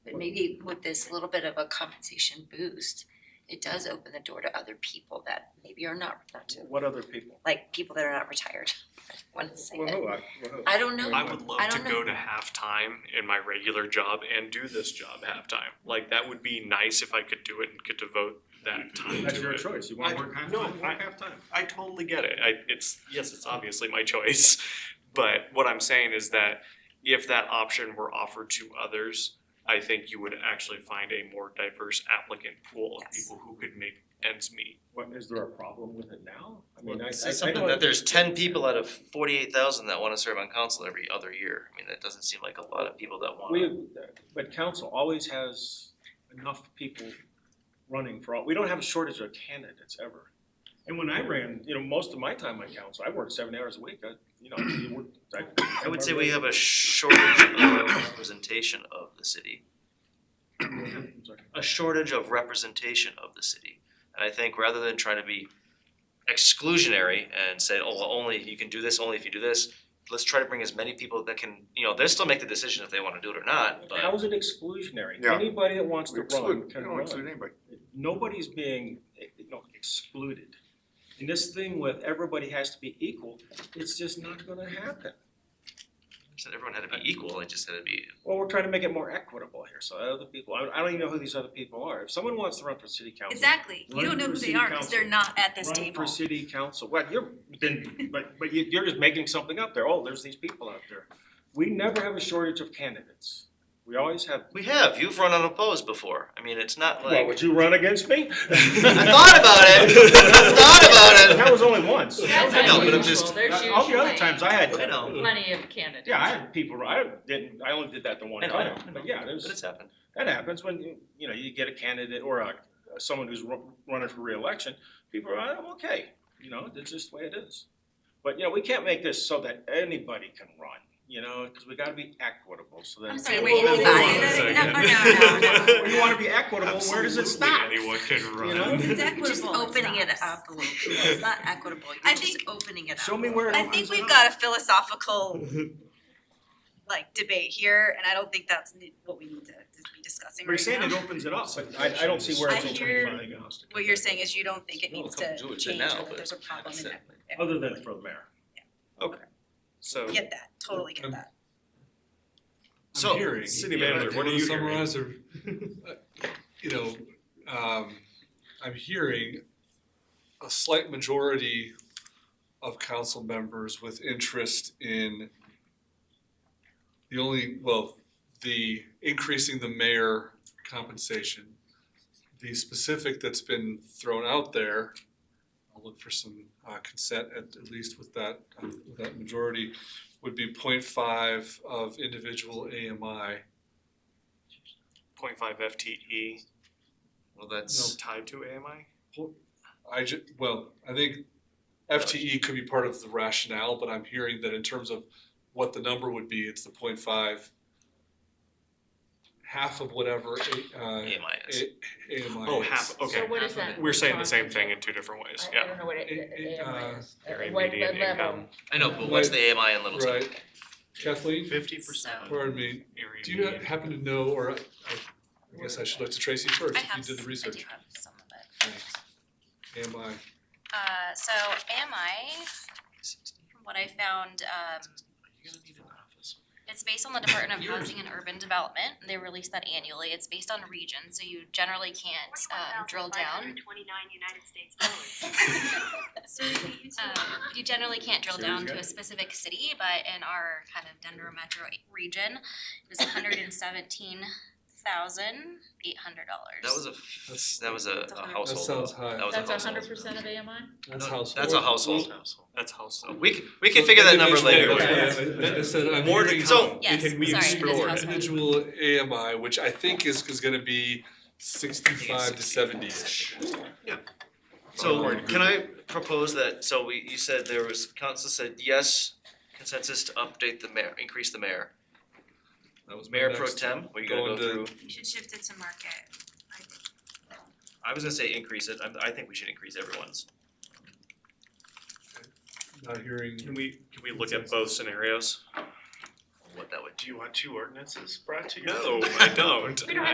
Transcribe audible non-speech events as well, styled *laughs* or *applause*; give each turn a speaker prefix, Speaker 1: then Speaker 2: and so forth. Speaker 1: maybe with this little bit of a compensation boost, it does open the door to other people that maybe are not, not to,
Speaker 2: What other people?
Speaker 1: like people that are not retired. *laughs* I don't wanna say
Speaker 2: Well,
Speaker 1: it.
Speaker 2: who, I, well, who?
Speaker 1: I don't know.
Speaker 3: I would
Speaker 1: I
Speaker 3: love to
Speaker 1: don't
Speaker 3: go
Speaker 1: know.
Speaker 3: to halftime in my regular job and do this job halftime. Like that would be nice if I could do it and could devote that time
Speaker 2: That's
Speaker 3: to
Speaker 2: your
Speaker 3: it.
Speaker 2: choice, you wanna
Speaker 3: I-
Speaker 2: work half-time,
Speaker 3: no,
Speaker 2: work
Speaker 3: I-
Speaker 2: half-time.
Speaker 3: I totally get it. I, it's yes, it's obviously my choice, *laughs* but what I'm saying is that if that option were offered to others, I think you would actually find a more diverse applicant pool of
Speaker 1: Yes.
Speaker 3: people who could make ends meet.
Speaker 2: What, is there a problem with it now? I mean, I, I.
Speaker 4: It's
Speaker 2: I
Speaker 4: something
Speaker 2: know
Speaker 4: that
Speaker 2: it-
Speaker 4: there's ten people out of forty-eight thousand that wanna serve on council every other year. I mean, that doesn't seem like a lot of people that wanna.
Speaker 2: We, but council always has enough people running for all, we don't have a shortage of candidates ever. And when I ran, you know, most of my time on council, I worked seven hours a week, I, you know, you worked.
Speaker 4: I would say we have a shortage of representation of the city,
Speaker 2: I'm sorry.
Speaker 4: a shortage of representation of the city. And I think rather than trying to be exclusionary and say, oh, well, only, you can do this, only if you do this, let's try to bring as many people that can, you know, they'll still make the decision if they wanna do it or not, but.
Speaker 2: How is it exclusionary?
Speaker 5: Yeah.
Speaker 2: Anybody that wants to
Speaker 5: We
Speaker 2: run
Speaker 5: exclude, we
Speaker 2: can
Speaker 5: don't exclude
Speaker 2: run.
Speaker 5: anybody.
Speaker 2: Nobody's being, eh, you know, excluded. And this thing with everybody has to be equal, it's just not gonna happen.
Speaker 4: said everyone had to be equal, I just had to be,
Speaker 2: Well, we're trying to make it more equitable here, so other people, I, I don't even know who these other people are. If someone wants to run for city council.
Speaker 6: Exactly, you don't know who they are, cause they're not at this
Speaker 2: Run for
Speaker 6: table.
Speaker 2: city council, well, you're, then, but, but you, you're just making something up there, oh, there's these people out there. We never have a shortage of candidates, we always have.
Speaker 4: we have, you've run unopposed before, I mean, it's not like.
Speaker 2: Well, would you run against me? I
Speaker 4: I thought about it.
Speaker 2: *laughs*
Speaker 4: I thought about it.
Speaker 2: That was only once.
Speaker 7: That's
Speaker 4: I know, but I'm
Speaker 7: unusual,
Speaker 4: just-
Speaker 7: there's
Speaker 2: All the other
Speaker 7: usually
Speaker 2: times I had.
Speaker 4: I know.
Speaker 7: plenty of candidates.
Speaker 2: Yeah, I had people, I didn't, I only did that the one
Speaker 4: I know, I know,
Speaker 2: time,
Speaker 4: I know.
Speaker 2: but yeah, there's.
Speaker 4: But it's happened.
Speaker 2: That happens when, you you know, you get a candidate or a, someone who's ru- running for reelection, people are, "Oh, okay, you know, that's just the way it is. But, you know, we can't make this so that anybody can run, you know, because we gotta be equitable, so that.
Speaker 1: I'm sorry,
Speaker 6: wait,
Speaker 2: Whoa, whoa,
Speaker 6: anybody?
Speaker 2: whoa, whoa, whoa.
Speaker 6: No, no,
Speaker 3: no, no,
Speaker 1: *laughs*
Speaker 3: no.
Speaker 2: You wanna be equitable, where does it stop?
Speaker 3: Absolutely anyone can run.
Speaker 2: know?
Speaker 6: It's equitable,
Speaker 1: Just opening it
Speaker 6: it's not.
Speaker 1: up a little bit, it's not equitable,
Speaker 6: I
Speaker 1: you're just
Speaker 6: think-
Speaker 1: opening it up.
Speaker 2: Show me where it
Speaker 6: I
Speaker 2: opens
Speaker 6: think we've
Speaker 2: up.
Speaker 6: got a philosophical like debate here, and I don't think that's ne- what we need to to be discussing
Speaker 2: We're
Speaker 6: right
Speaker 2: saying it
Speaker 6: now.
Speaker 2: opens it up, but I, I don't see where it's
Speaker 6: I
Speaker 2: ultimately
Speaker 6: hear
Speaker 2: finally gonna.
Speaker 6: What you're saying is you don't think it
Speaker 4: No,
Speaker 6: needs
Speaker 4: come
Speaker 6: to
Speaker 4: do it right
Speaker 6: change,
Speaker 4: now,
Speaker 6: or that
Speaker 4: but
Speaker 6: there's a problem in
Speaker 4: that's
Speaker 6: that.
Speaker 2: Other than for the mayor.
Speaker 3: So
Speaker 6: Get that, totally get that.
Speaker 3: So,
Speaker 8: I'm hearing.
Speaker 3: city manager,
Speaker 8: Do
Speaker 3: what are you
Speaker 8: wanna
Speaker 3: hearing?
Speaker 8: Summarize or, you know, um, I'm hearing a slight majority of council members with interest in the only, well, the increasing the mayor compensation. The specific that's been thrown out there, I'll look for some uh, consent at, at least with that, uh, with that majority would be 0.5 of individual AMI.
Speaker 3: *laughs* point five FTE
Speaker 4: Well, that's
Speaker 3: tied to AMI?
Speaker 8: I ju- well, I think FTE could be part of the rationale, but I'm hearing that in terms of what the number would be, it's the 0.5, half of whatever A- uh,
Speaker 4: AMI is.
Speaker 8: A- AMI
Speaker 3: Oh,
Speaker 8: is.
Speaker 3: half,
Speaker 1: E.
Speaker 3: okay.
Speaker 7: So what is that?
Speaker 3: We're saying the same thing in two different ways,
Speaker 7: I- I
Speaker 3: yeah.
Speaker 7: don't know what
Speaker 8: It- it,
Speaker 7: it,
Speaker 8: uh,
Speaker 7: AMI is. Uh,
Speaker 3: Area
Speaker 7: what-
Speaker 3: median
Speaker 7: what level?
Speaker 3: income.
Speaker 4: I know, but what's the AMI in Littleton?
Speaker 8: Right. Kathleen,
Speaker 3: Fifty
Speaker 8: pardon me,
Speaker 3: Area
Speaker 8: do you
Speaker 3: median.
Speaker 8: happen to know, or I, I guess I should look to Tracy first,
Speaker 9: I
Speaker 8: if you
Speaker 9: have,
Speaker 8: did
Speaker 9: s-
Speaker 8: the
Speaker 9: I do
Speaker 8: research.
Speaker 9: have some of it.
Speaker 8: AMI,
Speaker 9: Uh, so AMI, from what I found, um, it's based on the Department of Housing and Urban Development, and they release that annually, it's based on region, so you generally can't, um, drill down. Um, you generally can't drill down to a specific city, but in our kind of Denver metro region, it was hundred and seventeen thousand eight hundred dollars.
Speaker 4: That was a, f-
Speaker 8: That's-
Speaker 4: that was a,
Speaker 9: That's a
Speaker 4: a
Speaker 9: hundred-
Speaker 4: household.
Speaker 8: That sounds high.
Speaker 4: That was a
Speaker 7: That's
Speaker 4: household.
Speaker 7: hundred percent of AMI?
Speaker 8: that's
Speaker 4: No,
Speaker 8: household.
Speaker 4: That's a household.
Speaker 3: That's household.
Speaker 4: We, c- we can figure that number later.
Speaker 8: Individual
Speaker 3: later.
Speaker 8: AMI, like I said, I'm
Speaker 4: More to
Speaker 8: hearing-
Speaker 4: come. So-
Speaker 9: Yes,
Speaker 3: Can we
Speaker 9: sorry, it is
Speaker 3: explore
Speaker 9: household.
Speaker 8: individual AMI, which I think is, is gonna be sixty-five to seventy-ish.
Speaker 4: So
Speaker 8: Um,
Speaker 4: can I propose that, so we, you said there was, council said yes, consensus to update the mayor, increase the mayor.
Speaker 8: That was my
Speaker 4: Mayor pro
Speaker 8: next-
Speaker 4: tem, we gotta go
Speaker 8: going to-
Speaker 4: through,
Speaker 9: You should shift it to market.
Speaker 4: I was gonna say increase it, I, I think we should increase everyone's.
Speaker 8: Not hearing,
Speaker 3: Can we, can we look at both scenarios?
Speaker 4: What that would do.
Speaker 3: Do you want two ordinances brought to you? No, I don't.
Speaker 7: We don't have